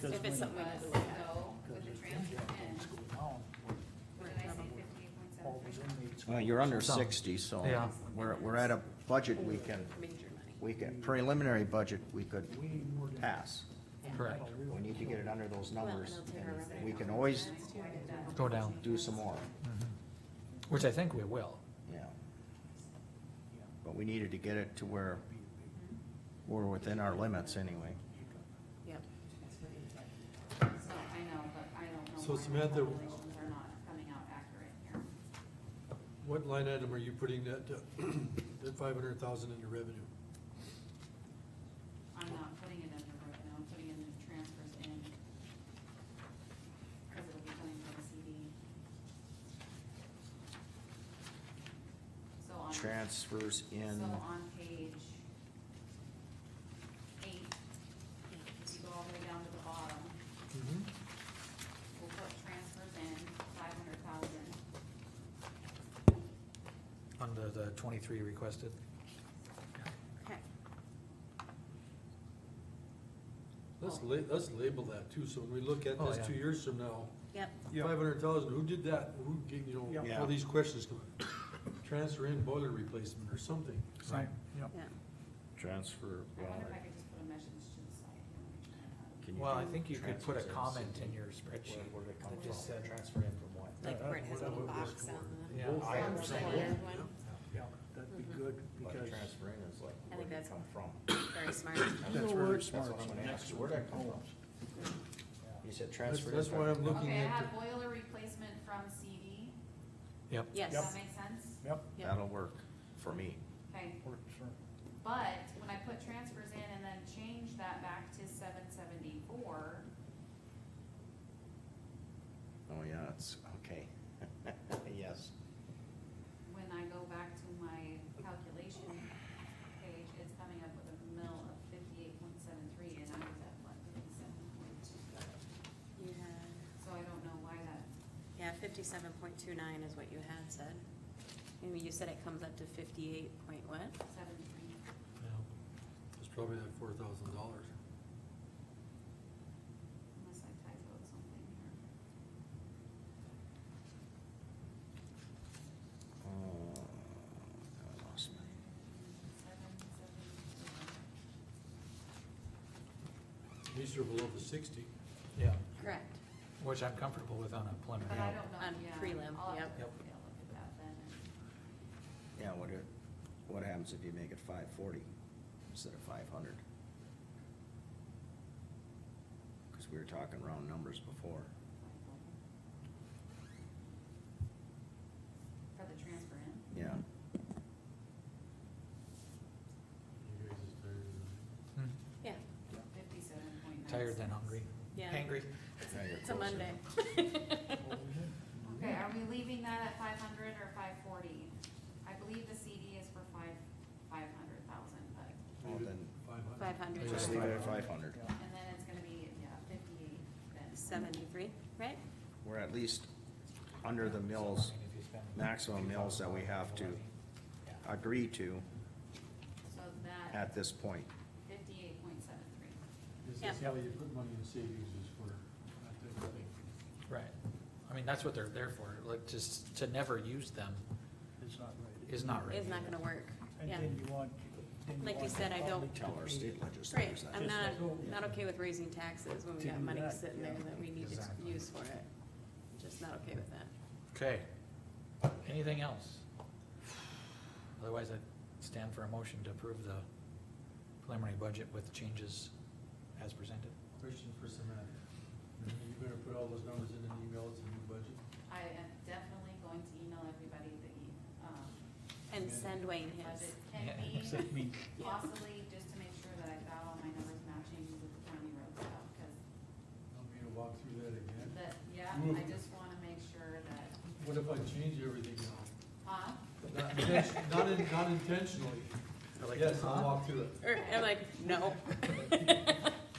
So if it's something we need to look at. Go with the transfer and, what did I say, fifteen point seven? Well, you're under Some. sixty, so Yeah. we're, we're at a budget we can, Major money. we can, preliminary budget we could pass. Correct. We need to get it under those Well, and numbers, I'll take our and revenue we can off. always Go down. do some more, Mhm. Which I think we will. yeah. But we needed to get it to where we're within our limits anyway. Yep. So I know, but I don't know. So why my Samantha- Calculations are not coming out accurate here. What line item are you putting that, uh, that five hundred thousand into revenue? I'm not putting it in the revenue, I'm putting it in the transfers in. Cause it'll be coming from the CD. So on. Transfers in, So on page eight, if you go all the way down to the bottom, Mm-hmm. we'll put transfers in, five hundred thousand. Under the twenty-three requested. Okay. Let's la, let's label that too, so when we look at Oh, this yeah. two years from now, Yep. Yeah. five hundred thousand, who did that, who, gave- you know, Yeah. all these questions come up. Transfer in boiler replacement or something. Right, yeah. Yeah. transfer, I well, wonder if I could just put a message to the side. here. can you? Well, I do think you could put a transfers in? comment in your spreadsheet Where- where'd it come that just from? said. Transfer in from what? Like where it has a little That was box on Yeah. Both I of am them. saying- Yeah. Yeah, that'd be good, But because transfer in is like, I where'd think it that's- come from? the, very smart. that's That's where where- it's that's smart. what I'm gonna ask you, where'd that come from? You said That's, transfer. that's in why I'm from- looking Okay, I at, have boiler replacement from CD, Yep. Yes. does that make sense? Yep, Yep. That'll work for me. Okay, works for, but when I put transfers in and then change that back to seven seventy-four, Oh, yeah, it's, okay. Yes. when I go back to my calculation page, it's coming up with a mill of fifty-eight point seven three, and I was at what, fifty-seven point two? You So I don't know why that, had, yeah, fifty-seven point two nine is what you had said. And you said it comes up to fifty-eight point what? seventy-three, it's probably that four thousand dollars. unless I typoed something here. Uh, I lost my, Seven, seven, These are below the sixty. Yeah, Correct. which I'm comfortable with on a but I don't preliminary. know, On yeah. prelim, I'll have yep. to Yep. take a look at that then. yeah, what it, what happens if you make it five forty instead of five hundred? Cause we were talking round numbers before. For the transfer in, Yeah, You guys is tired of Hmm. Yeah, fifty-seven point nine. Tired than hungry. yeah. Hangry. Now you're It's a closer. Monday. Okay, are we leaving that at five hundred or five forty? I believe the CD is for five, five hundred thousand, but, that. Well, Leave it then- Five hundred. Five hundred, just leave it at five hundred. yeah. and then it's gonna be, yeah, fifty-eight then. seventy-three, right? We're at least under the mills, If you spend- maximum mills that we have to Yeah. agree to So that at this point. fifty-eight point seven three. This Yeah. is how you put money in savings is for, that type of thing. Right. I mean, that's what they're there for, like, just to never use them it's not right. is not right. It's not gonna work, And yeah. then you want, then you Like you want the said, I don't- public to Tell our pay state it. Right, legislators I'm that. not, Just- not okay with raising taxes when we To got do money that, sitting there yeah. that we need to Exactly. use for it. Just not okay with that. Okay. Anything else? Otherwise, I stand for a motion to approve the preliminary budget with changes as presented. Question for Samantha. You better put all those numbers in an email, it's a new budget. I am definitely going to email everybody the, um, And send Wayne his. budget can Yeah, be. except me. Possibly just to make sure that I've got all my numbers matching with the county road stuff, cause I'll be to walk through that again. the, yeah, Ooh. I just wanna make sure that, What if I change everything now? huh? Not inten- Not, in- not intentionally. I like Yes, that. I'll walk through it. Or, I'm like, no.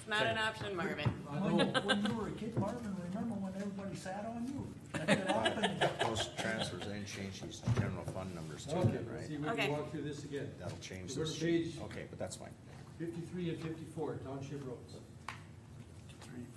It's not an option, Marvin. I When you- know. When you were a kid, Marvin, remember when everybody sat on you? That could happen. Those transfers then change these general fund numbers too, Okay, then, see, right? we Okay. can walk through this again. That'll change Go to this. page- Okay, but that's fine. Fifty-three and fifty-four, township roads.